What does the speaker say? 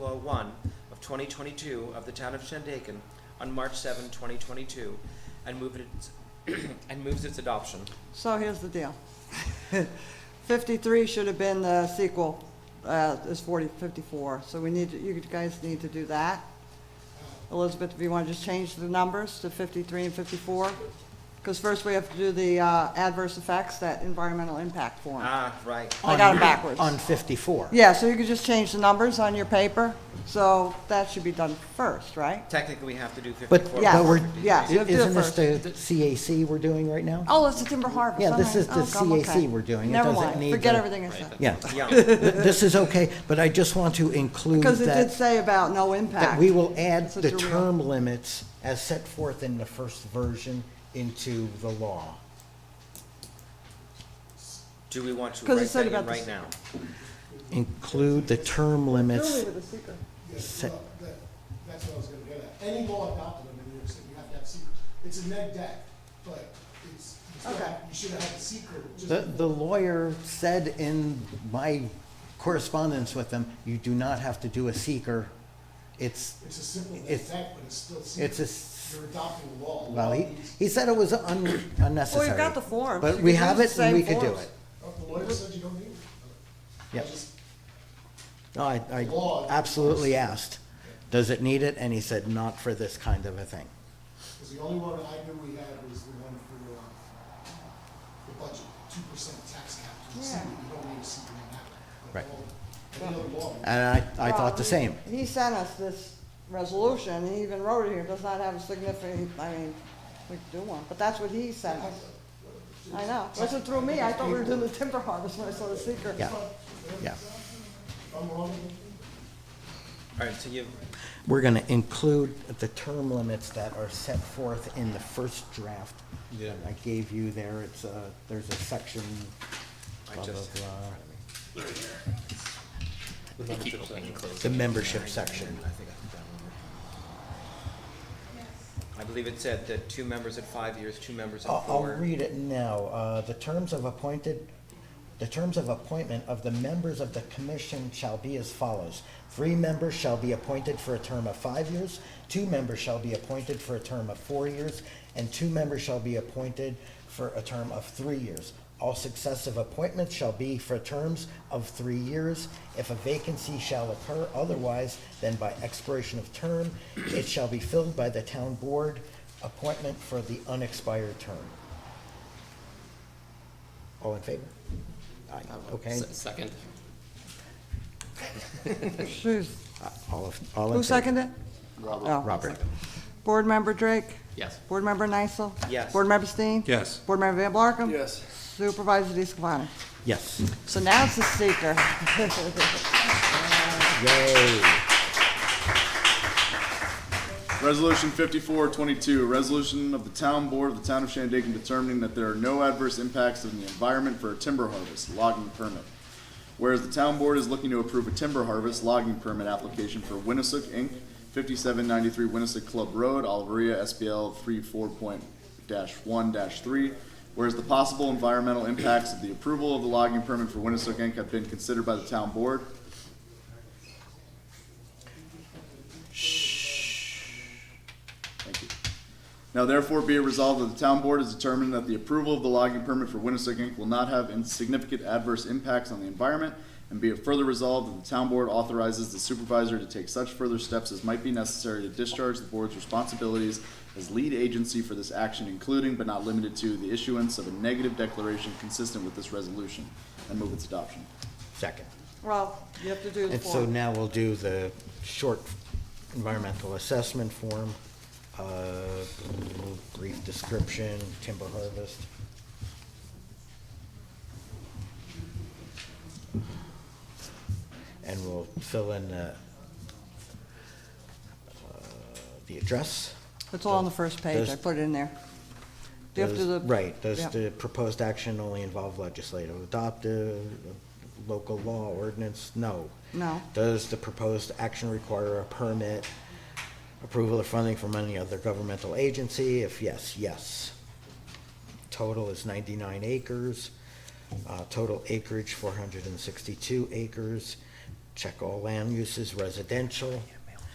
1 of 2022 of the Town of Shandaken on March 7, 2022, and move its, and moves its adoption. So here's the deal. 53 should have been the sequel, uh, is 40, 54, so we need, to- you guys need to do that. Elizabeth, if you want to just change the numbers to 53 and 54, because first we have to do the uh, adverse effects, that environmental impact form. Ah, right. I got on- it backwards. On 54. Yeah, so you could just change the numbers on your paper, so that should be done first, right? Technically, we have to do 54. But, Yeah. but we're, Yeah, so i- let's do it isn't this the the CAC we're doing right now? Oh, it's the timber harvest. Yeah, I'm this like, is the oh, gum, okay. CAC we're doing. It Never doesn't mind, need forget the- everything I said. Yeah, Yeah, Th- this is okay, but I just want to include Uh, Because it did that, say about no that impact. we will add Such the a real- term limits as set forth in the first version into the law. do we want to 'Cause it write said that in about the right s- now? Include the term limits, Yes, Se- well, that, that's what I was gonna get at. Any law adopted under New York City, you have to have secret. It's a neg deck, but it's, you still Okay. have- you should have had the secret. just- the, the lawyer said in my correspondence with him, you do not have to do a seeker. It's, It's a simple neg it's- deck, but it's still it's a secret. s- You're adopting a law. Well, he, Law needs- he said it was un- unnecessary. got the forms. You But can we use have the it same and we could do forms. it. Oh, The lawyer said you don't need it. I Yep. just- No, I, I Law. absolutely asked, does it need it? And he said, not for this kind of a thing. Cause the only one I knew we had was the one for, um, the budget, two percent tax cap to the Yeah. secret. You don't need a secret in that. but Right. Uh, all- Any other law. And I, I thought the Well, same. he- He sent us this resolution, he even wrote it here, does not have a significant, I mean, we could do one, but that's what he sent us. I know, wasn't through me, I thought we were doing the timber harvest when I saw the seeker. Yeah, yeah. If I'm wrong, All right, so you, We're gonna include the term limits that are set forth in the first draft. Yeah. I gave you there, it's uh there's a section, I blah, blah, just- blah, The membership section. the membership section. I believe it said that two members at five years, two members I'll, at I'll four. read it now. Uh, The terms of appointed, the terms of appointment of the members of the commission shall be as follows. Three members shall be appointed for a term of five years, two members shall be appointed for a term of four years, and two members shall be appointed for a term of three years. All successive appointments shall be for terms of three years. If a vacancy shall occur otherwise than by expiration of term, it shall be filled by the town board appointment for the unexpired term. All in favor? Aye, okay. Se- Second. Who's- Uh, All of, all in favor? Who seconded it? Robert. Robert. Board member Drake? Yes. Board member Nysel? Yes. Board member Steen? Yes. Board member Van Blarkum? Yes. Supervisor DeScalani? Yes. So now it's the seeker. Yay. Resolution fifty-four twenty-two, resolution of the town board of the town of Shandaken determining that there are no adverse impacts on the environment for a timber harvest logging permit. Whereas the town board is looking to approve a timber harvest logging permit application for Winnisook Inc., fifty-seven ninety-three Winnisook Club Road, Alvaria, SPL three four point dash one dash three. Whereas the possible environmental impacts of the approval of the logging permit for Winnisook Inc. have been considered by the town board, Thank you. Now therefore be it resolved that the town board has determined that the approval of the logging permit for Winnisook Inc. will not have insignificant adverse impacts on the environment, and be it further resolved that the town board authorizes the supervisor to take such further steps as might be necessary to discharge the board's responsibilities as lead agency for this action, including but not limited to the issuance of a negative declaration consistent with this resolution, and move its adoption. Second. Well, you have to do the And so form. now we'll do the short environmental assessment form, uh, brief description, timber harvest. And we'll fill in the, uh, the address. It's all on the first page, I Does- put it in there. Do you have to Does- do the- Right, does Yeah. the proposed action only involve legislative adoptive, local law ordinance? No. No. Does the proposed action require a permit, approval or funding from any other governmental agency? If yes, yes. Total is ninety-nine acres, uh, total acreage four hundred and sixty-two acres, Check all land uses, residential,